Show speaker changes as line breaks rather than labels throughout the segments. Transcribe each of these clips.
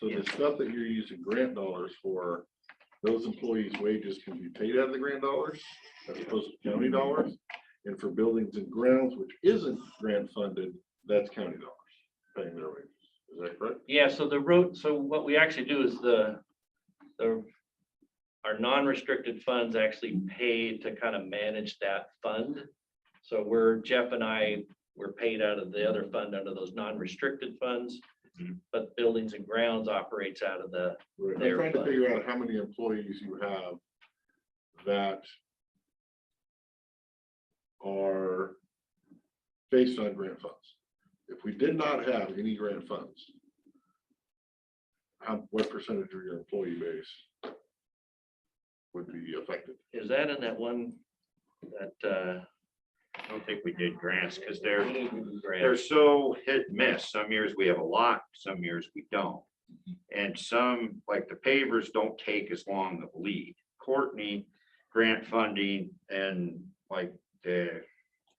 So the stuff that you're using grant dollars for, those employees' wages can be paid out of the grant dollars, as opposed to county dollars. And for buildings and grounds, which isn't grant funded, that's county dollars paying their wages. Is that correct?
Yeah, so the road, so what we actually do is the, the, our non-restricted funds actually paid to kind of manage that fund. So we're, Jeff and I, we're paid out of the other fund under those non-restricted funds.
Mhm.
But buildings and grounds operates out of the,
Right, I'm
They're
trying to
funded.
figure out how many employees you have that are based on grant funds. If we did not have any grant funds, how, what percentage of your employee base would be affected?
is that in that one? That, uh.
I don't think we did grants because they're, they're
grant?
so hit and miss. Some years we have a lot, some years we don't. And some, like the pavers, don't take as long of a lead. Courtney, grant funding and like the,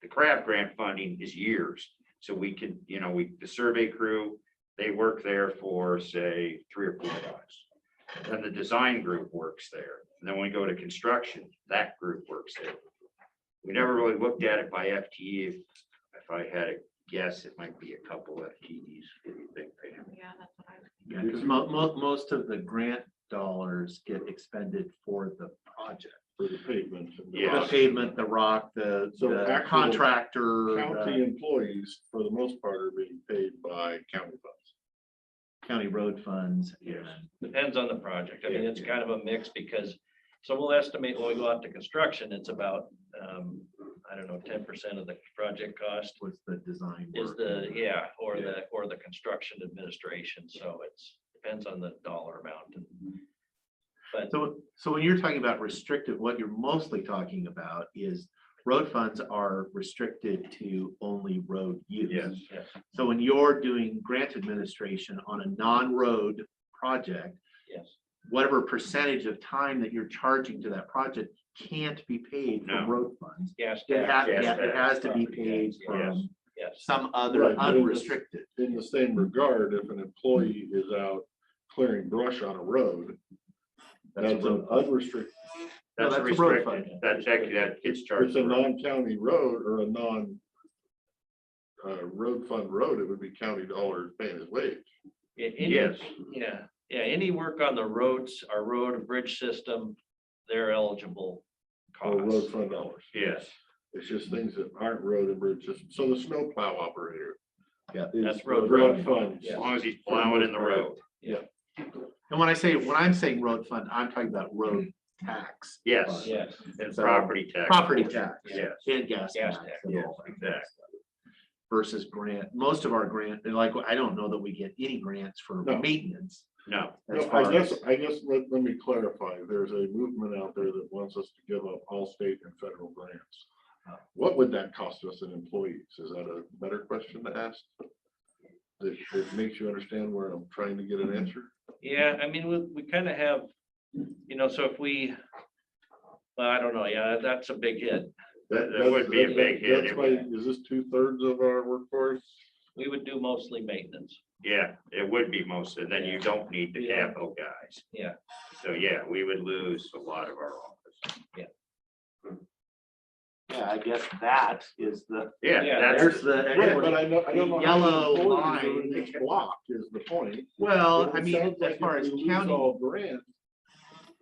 the crab grant funding is years. So we can, you know, we, the survey crew, they work there for, say, three or four guys. Then the design group works there. And then when we go to construction, that group works there. We never really looked at it by FTE. If if I had a guess, it might be a couple FTEs. What do you think, Pam?
Yeah, that's what I was
Yeah, because mo- mo- most of the grant dollars get expended for the project.
For the pavement. and the
Yeah.
The
rock.
pavement, the rock, the
So
the
actual
contractor.
County
the
employees, for the most part, are being paid by county funds.
County road funds.
Yes.
and-
Depends on the project. I mean, it's kind of a mix because, so we'll estimate when we go out to construction, it's about, um, I don't know, ten percent of the project cost
What's the design?
is
work
the,
and the-
yeah, or the, or the construction administration. So it's, depends on the dollar amount. But
So, so when you're talking about restricted, what you're mostly talking about is road funds are restricted to only road use.
Yes.
Yes.
So when you're doing grant administration on a non-road project,
yes,
whatever percentage of time that you're charging to that project can't be paid
No.
from road funds.
gas.
It has,
tax,
yes,
yeah, it has to be
property
paid
tax,
from
Yes,
some
Right,
other
but it was-
unrestricted.
In the same regard, if an employee is out clearing brush on a road, That's
road
an unrestricted,
No,
That's
that's a road
restricted. That's actually, that gets charged.
it's a
for-
non-county road or a non uh, road fund road, it would be county dollars paying his wage.
Yeah, any-
Yes,
Yeah, yeah, any work on the roads, our road and bridge system, they're eligible
Or road
costs.
fund dollars.
yes.
It's just things that aren't road and bridge system. So the snow plow operator.
Yeah.
is
That's road
fund.
As
Yeah.
long as he's plowing in the road.
And when I say, when I'm saying road fund, I'm talking about road tax.
Mm-hmm. Yes.
Yes,
And
So-
property tax.
Property tax.
Yes.
And gas
Gas
tax.
tax,
and
yes,
all that kind of
exactly.
stuff. Versus grant, most of our grant, and like, I don't know that we get any grants for
No.
maintenance.
No,
as
No, I
far
guess,
as-
I guess, let, let me clarify. There's a movement out there that wants us to give up all state and federal grants. Uh, What would that cost us in employees? Is that a better question to ask? That, that makes you understand where I'm trying to get an answer?
yeah, I mean, we, we kind of have, you know, so if we, well, I don't know, yeah, that's a big hit.
That- that would be a big hit.
That's why, is this two thirds of our workforce?
We would do mostly maintenance.
yeah, it would be most, and then you don't need the
Yeah.
capital guys.
Yeah.
So, yeah, we would lose a lot of our office.
Yeah, I guess that is the,
Yeah,
Yeah,
there's
that's,
Right,
the.
but I know, I don't know. how many
Yellow
employees are
line.
in each Block is the point.
Well,
It
I mean,
sounds like
as
if
far as
we lose
county,
All grants,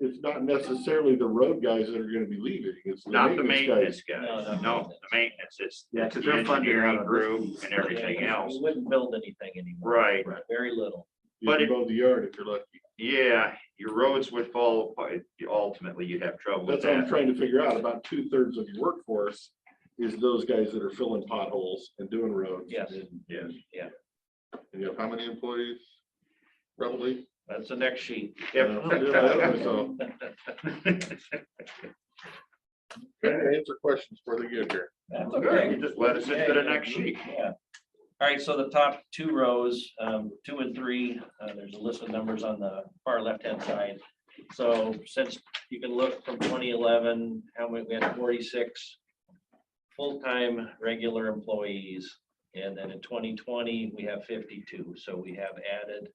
it's not necessarily the road guys that are gonna be leaving, it's.
not the
guys.
maintenance
No,
guys.
not
No,
maintenance.
the maintenance is.
Yeah, 'cause
the
they're funded out
Engineering
of
group
this.
and
Yeah,
everything
we-
else.
We wouldn't build anything anymore.
Right.
Very little.
You
But
can
it-
mow the yard if you're lucky.
Yeah, your roads would fall apart. Ultimately, you'd have trouble with
That's what I'm
that.
trying to figure out. About two thirds of your workforce is those guys that are filling potholes and doing roads.
Yes.
and-
Yes.
Yeah.
And you have how many employees? Probably.
That's the next sheet.
Yeah, I don't know, so- Trying to Answer questions before they get here.
That's
Good, you just let us into the
Yeah,
next sheet.
Yeah. All right, so the top two rows, um, two and three, uh, there's a list of numbers on the far left-hand side. So since you can look from twenty eleven, how many, we had forty-six full-time regular employees. And then in twenty twenty, we have fifty-two, so we have added